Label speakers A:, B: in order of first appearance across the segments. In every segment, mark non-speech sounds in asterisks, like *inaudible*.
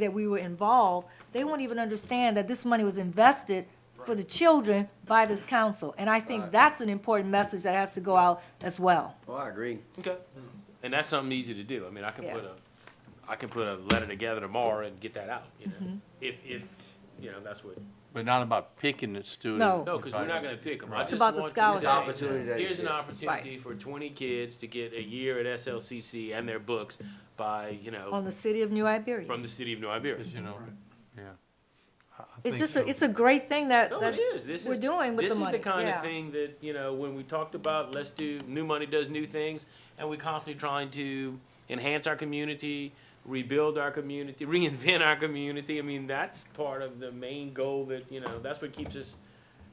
A: that we were involved, they won't even understand that this money was invested for the children by this council. And I think that's an important message that has to go out as well.
B: Oh, I agree.
C: Okay. Mm. And that's something easy to do. I mean, I can
A: Yeah.
C: put a, I can put a letter together tomorrow and get that out, you
A: Mm-hmm.
C: know? If, if, you know, that's what,
D: But not about picking the student.
A: No.
C: no, because we're not gonna pick them.
A: It's about the scholarship.
B: The opportunity that
C: Here's an
B: exists.
C: opportunity for twenty kids to get a year at SLCC and their books by, you
A: On
C: know,
A: the city of New Iberia.
C: from the city of New Iberia.
D: Because, you know, yeah. I- I
A: It's
D: think
A: just, a
D: so.
A: it's a great thing that,
C: No,
A: that
C: it is. This
A: we're
C: is
A: doing with
C: this
A: the money.
C: is the kind
A: Yeah.
C: of thing that you know when we talked about let's do new money does new things, and we're constantly trying to enhance our community, rebuild our community, *laughs* reinvent our community. I mean that's part of the main goal that you know that's what keeps us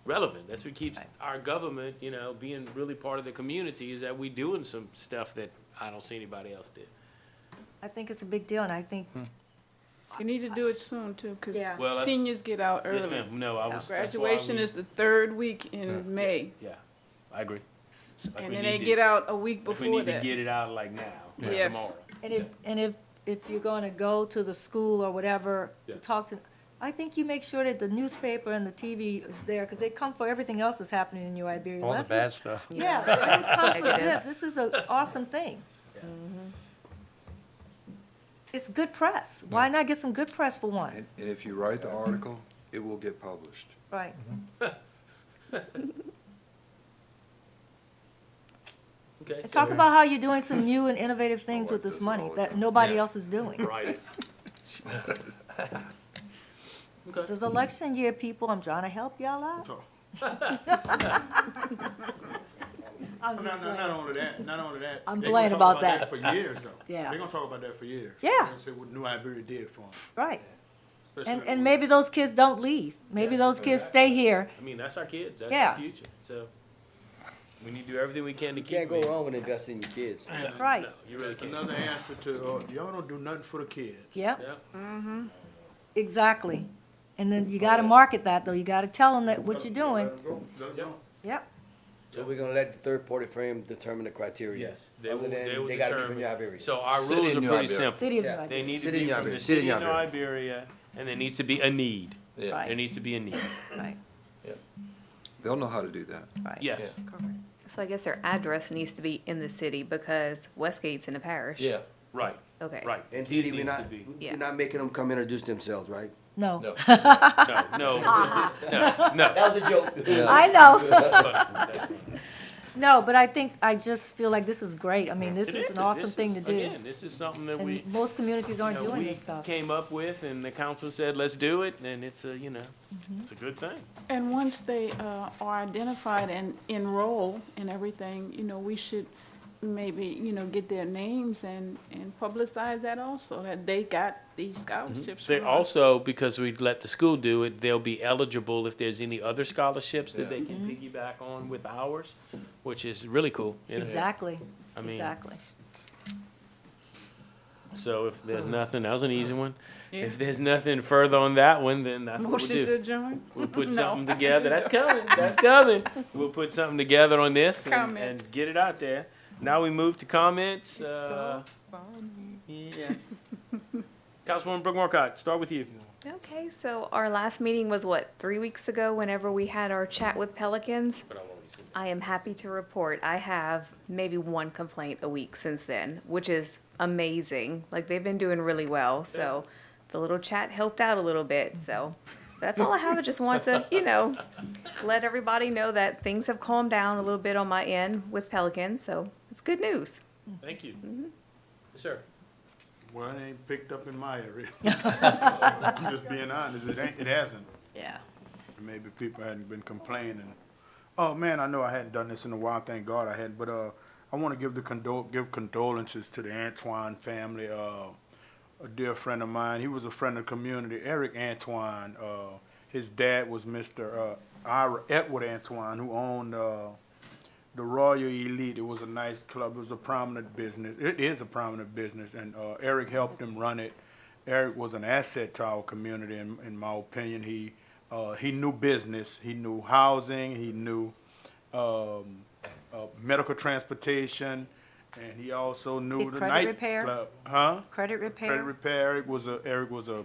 C: relevant. That's what keeps our government you know being really part of the community is that we doing some stuff that I don't see anybody else do.
A: I think it's a big deal and I think,
E: You need to do it soon too, because
A: Yeah.
C: Well, that's-
E: seniors get out
C: Yes,
E: early.
C: ma'am. No, I was that's why
E: Graduation
C: we-
E: is the third week
D: Yeah.
E: in May,
C: yeah. I agree. Like,
E: and
C: we
E: then they
C: need to-
E: get out a week
C: like, we
E: before
C: need to
E: that.
C: get it out like now, like
E: Yes.
C: tomorrow.
A: and if, and if, if you're gonna go to the school or whatever to
C: Yeah.
A: talk to, I think you make sure that the newspaper and the TV is there, because they come for everything else that's happening in New Iberia.
D: All the
A: Let's-
D: bad stuff.
A: Yeah, they would come for this. This is an awesome thing. It's good press. Why not get some good press for
F: And,
A: once?
F: and if you write the article, it will get published.
A: Right.
C: Okay.
A: And
C: so-
A: talk about how you're doing some new and innovative things with this money that nobody
D: Yeah.
A: else is
C: *laughs*
A: doing.
C: Right.
A: This is election year, people. I'm trying to help y'all out. *laughs* I'm
G: No,
A: just
G: no,
A: playing.
G: not only that, not only that.
A: I'm
G: they gonna
A: glad
G: talk
A: about that.
G: For years though.
A: *laughs* Yeah.
G: They're gonna talk about that for years.
A: Yeah.
G: They're gonna say what New Iberia did for
A: Right.
G: them.
A: And, and maybe those kids don't leave. Maybe those kids stay here.
C: I mean, that's our kids. That's
A: Yeah.
C: our future. So we need to do everything we can to
B: You can't
C: keep
B: go
C: them.
B: wrong with investing in your kids.
C: *clears throat*
A: Right.
C: No, you really can't.
G: Another answer to, uh, y'all don't do nothing for the kids.
A: Yep.
C: Yeah.
A: Exactly. And then you gotta market that, though. You gotta tell them that what you're doing.
G: Let 'em go. Let 'em
C: Yep.
G: go.
A: Yep.
B: So we're gonna let the third party frame determine the criteria.
C: Yes. They
B: Other
C: will,
B: than
C: they will
B: gotta be
C: determine.
B: from New Iberia.
C: So our
D: City
C: rules are
D: of New
C: pretty
D: Iberia.
C: simple.
A: City of New
B: Yeah.
C: They need to
B: City of
C: be
B: New
C: from the
B: Iberia. City of
C: city of New
B: New
C: Iberia, and there needs to be a need.
D: Yeah.
A: Right.
C: There needs to be a need.
A: Right,
F: They'll know how to do that.
A: right.
C: Yes.
H: So I guess their address needs to be in the city because Westgate's in the parish.
D: Yeah.
C: Right.
H: Okay.
C: Right.
B: And
C: Need
B: Didi, we're
C: needs to
B: not, *laughs*
C: be.
H: Yeah.
B: we're not making them come introduce themselves, right?
A: No,
C: No,
A: *laughs*
C: no, no, no.
B: That was a *laughs* joke.
A: I know. *laughs*
C: That's fine.
A: No, but I think, I just feel like this is great. I mean, this
C: It
A: is an
C: This
A: awesome thing to
C: is-
A: do.
C: Again, this is something that we,
A: And most communities
C: you
A: aren't
C: know,
A: doing
C: we
A: this stuff.
C: came up with, and the council said, let's do it, and it's a, you know,
A: Mm-hmm.
C: it's a good thing.
E: And once they uh, are identified and enroll and everything, you know, we should maybe, you know, get their names and, and publicize that also, that they got these scholarships
C: Mm-hmm. They
E: from us.
C: also, because we let the school do it, they'll be eligible if there's any other scholarships that they can piggyback on with ours, which is really cool. you know?
A: Exactly,
C: I mean,
A: exactly.
C: So if there's nothing, that was an easy one. If there's nothing further on that one, then that's what we'll
E: Motion to
C: do.
E: adjourn?
C: We'll put
E: *laughs* No,
C: something
E: I
C: together. That's
E: just-
C: coming, that's coming. We'll put something together on this and,
E: Comments.
C: and get it out there. Now we move to comments,
E: It's
C: uh,
E: so funny. *laughs*
C: yeah. Councilwoman Brooke Markcott, start with you.
H: Okay, so our last meeting was what, three weeks ago, whenever we had our chat with Pelicans? I am happy to report I have maybe one complaint a week since then, which is amazing. Like they've been doing really well. So the little chat helped out a little bit. So that's all I have. I just want to, you know, let everybody know that things have calmed down a little bit on my end with Pelicans. So it's good news.
C: Thank you.
E: Mm-hmm.
C: Sir.
G: Well, it ain't picked up in
A: *laughs*
G: my area. I'm just being honest, it ain't, it hasn't.
A: Yeah.
G: Maybe people hadn't been complaining. Oh, man, I know I hadn't done this in a while, thank God I hadn't, but, uh, I wanna give the condol, give condolences to the Antoine family, uh, a dear friend of mine, he was a friend of the community, Eric Antoine, uh, his dad was Mr. uh, Ira Edward Antoine, who owned, uh, the Royal Elite. It was a nice club. It was a prominent business. It is a prominent business, and uh, Eric helped him run it. Eric was an asset to our community, in, in my opinion. He uh, he knew business. He knew housing. He knew um, uh, medical transportation, and he also knew
A: Did
G: the
A: credit
G: night
A: repair?
G: club. Huh?
A: Credit repair?
G: Credit repair. Eric was a Eric was a